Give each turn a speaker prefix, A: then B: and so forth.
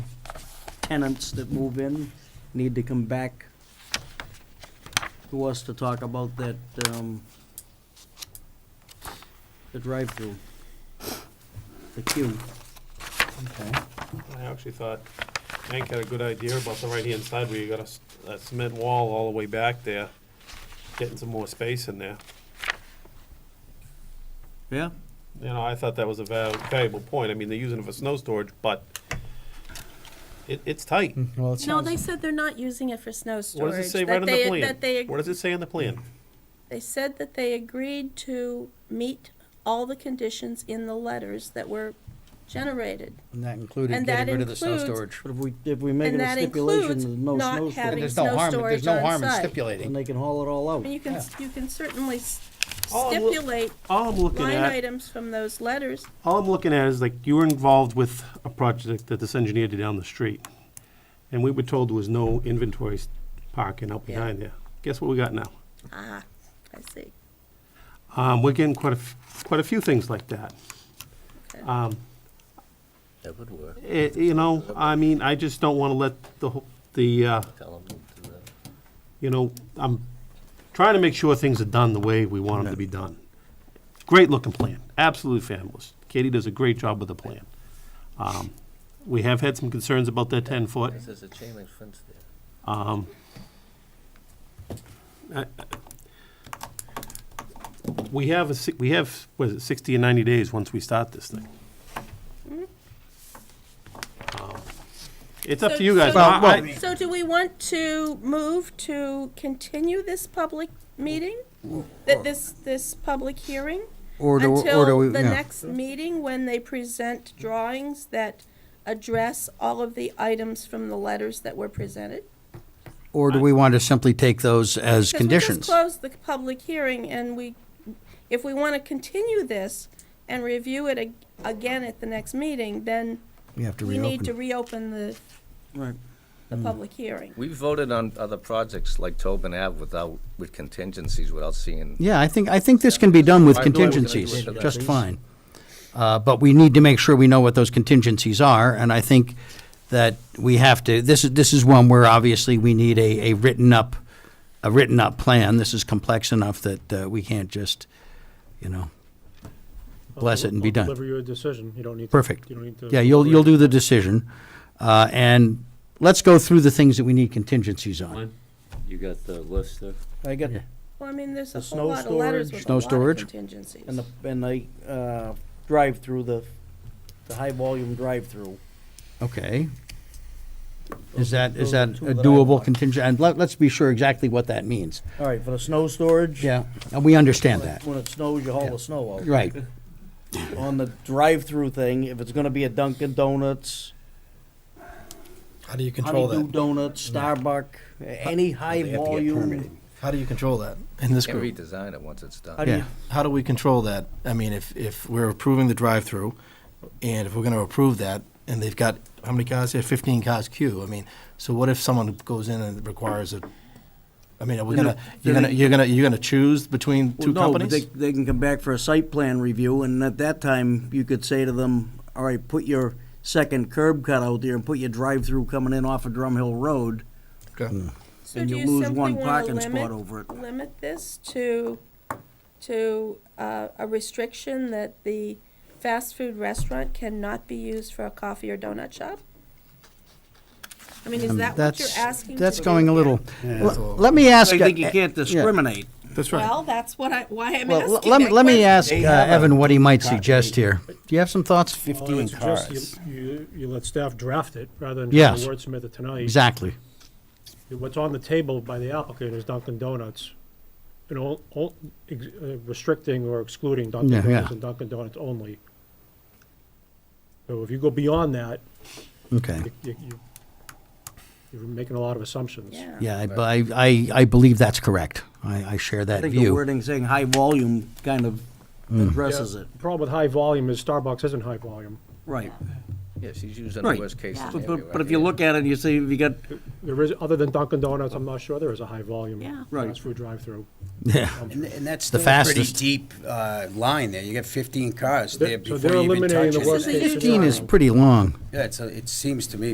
A: tenants that move in need to come back to us to talk about that, um, the drive-through, the queue.
B: Okay.
C: I actually thought Hank had a good idea about the right-hand side where you got a s- a cement wall all the way back there, getting some more space in there.
A: Yeah?
C: You know, I thought that was a val- valuable point. I mean, they're using it for snow storage, but it, it's tight.
B: Well, it sounds.
D: No, they said they're not using it for snow
C: What
D: storage.
C: does it say
D: that
C: right on
D: they-
C: the plan?
D: That they,
C: What does it say on the plan?
D: they said that they agreed to meet all the conditions in the letters that were generated.
B: And that included
D: And that
B: getting rid of the snow
D: includes-
B: storage.
A: But if we, if we make it
D: And
A: a
D: that
A: stipulation,
D: includes
A: there's no
D: not
A: snow
D: having-
B: And
A: storage,
B: there's no
D: snow
B: harm, there's
D: storage
B: no
D: on
B: harm in
D: site.
A: and
B: stipulating.
A: they can haul it all out.
D: And you can, you can certainly s-
C: Oh, well-
D: stipulate
C: All I'm looking
D: line
C: at,
D: items from those letters.
C: all I'm looking at is like, you were involved with a project that this engineer did down the street. And we were told there was no inventory s- parking out
D: Yeah.
C: behind there. Guess what we got now?
D: Ah, I see.
C: Um, we're getting quite a, f- quite a few things like that.
D: Okay.
C: Um,
E: That would work.
C: it, you know, I mean, I just don't wanna let the, whole- the, uh,
E: Tell them to do that.
C: you know, I'm trying to make sure things are done the way we want them to be done. Great looking plan, absolutely fabulous. Katie does a great job with the plan. Um, we have had some concerns about that ten foot.
E: This is a chain link fence there.
C: Um, I- I- We have a, si- we have, was it sixty and ninety days once we start this thing? Um, It's up
D: Mm-hmm. So-
C: to you guys.
D: so-
C: I- I-
D: So do we want to move to continue this public meeting? That this, this public hearing?
B: Or
D: Until the next meeting, when they present drawings that address all of the items from the letters that were presented?
B: Or do we want to simply take those as
D: Because
B: conditions?
D: we just closed the public hearing, and we, if we want to continue this and review it ag- again at the next meeting, then
B: We have to
D: we need to
B: reopen.
D: reopen the,
A: Right.
D: the public hearing.
E: We voted on other projects like Tobin Ave without, with contingencies, without seeing.
B: Yeah, I think, I think this can be done with
E: Why do I-
B: contingencies,
E: Yeah,
B: just
E: please.
B: fine. Uh, but we need to make sure we know what those contingencies are, and I think that we have to, this is, this is one where obviously we need a, a written up, a written up plan. This is complex enough that, uh, we can't just, you know, bless it and be
F: I'll
B: done.
F: Deliver your decision, you don't need to.
B: Perfect.
F: You don't need to.
B: Yeah, you'll, you'll do the decision, uh, and let's go through the things that we need contingencies on.
E: You got the list there?
A: I got,
B: Yeah.
D: Well, I mean, there's a
A: The
D: whole
A: snow
D: lot of letters
A: storage.
D: with a
B: Snow
D: lot of
B: storage.
D: contingencies.
A: and the, and the, uh, drive-through, the, the high-volume drive-through.
B: Okay. Is that, is
A: Those are
B: that
A: two
B: a
A: that I
B: doable
A: want.
B: contingent, and let, let's be sure exactly what that means.
A: All right, for the snow storage?
B: Yeah, and we understand that,
A: When it snows, you haul
B: Yeah.
A: the snow out.
B: right.
A: On the drive-through thing, if it's gonna be a Dunkin' Donuts,
G: How do you control
A: Honeydew
G: that?
A: Donuts, Starbucks, any high-volume.
G: How do you control that in this
E: Can't
G: group?
E: redesign it once it's
A: How
E: done.
A: do
B: Yeah.
A: you
G: How do we control that? I mean, if, if we're approving the drive-through, and if we're gonna approve that, and they've got, how many cars? They have fifteen cars queue. I mean, so what if someone goes in and requires a, I mean, are we
A: Then
G: gonna,
A: they-
G: you're
A: then
G: gonna,
A: they-
G: you're gonna, you're gonna choose between two
A: Well, no, but
G: companies?
A: They, they can come back for a site plan review, and at that time, you could say to them, all right, put your second curb cut out there and put your drive-through coming in off of Drum Hill Road,
G: Okay.
D: So
A: and
D: do
A: you
D: you
A: lose
D: simply
A: one
D: want to
A: parking spot
D: limit,
A: over it.
D: limit this to, to uh, a restriction that the fast food restaurant cannot be used for a coffee or donut shop? I mean, is that what you're
B: Um, That's,
D: asking?
B: that's
D: to do
B: going a
D: here?
B: little,
G: that's
B: L-
G: all.
B: let me
A: I
B: ask.
A: think you
B: uh,
A: can't
B: yeah.
A: discriminate.
G: That's right.
D: Well, that's what I, why I'm
B: Well,
D: asking
B: let me,
D: that
B: let me
D: question.
B: ask uh,
G: They have a-
B: Evan what he might suggest here. Do you have some thoughts?
F: Well, I would suggest You, you- you let staff draft it rather than trying
B: Yes.
F: to wordsmith it tonight.
B: Exactly.
F: What's on the table by the applicant is Dunkin' Donuts. And all, all, ex- uh, restricting or excluding Dunkin'
B: Yeah, yeah.
F: Donuts and Dunkin' Donuts only. So if you go beyond that,
B: Okay.
F: you, you, you're making a lot of assumptions.
D: Yeah.
B: Yeah, I, I, I- I believe that's correct. I, I share
A: I
B: that
A: think the
B: view. Mm.
A: wording saying high volume kind of addresses it.
F: The problem with high volume is Starbucks isn't high volume.
A: Right.
E: Yeah, she's using the
A: Right.
E: worst case
D: Yeah.
A: But,
E: scenario.
A: but,
E: right
A: but if you
E: here.
A: look at it and you see if you got,
F: There is, other than Dunkin' Donuts, I'm not sure there is a high volume.
D: Yeah.
A: Right.
F: Fast food drive-through.
B: Yeah.
H: And and that's
B: The
H: still a pretty
B: fastest.
H: deep uh, line there. You got 15 cars
F: They're-
H: there
F: so
H: before
F: they're
H: you even
F: eliminating
H: touch
F: the
H: it.
F: worst
D: This is a
F: case
D: huge
B: Fifteen
F: scenario.
B: is pretty long.
H: Yeah, it's, a- it seems to me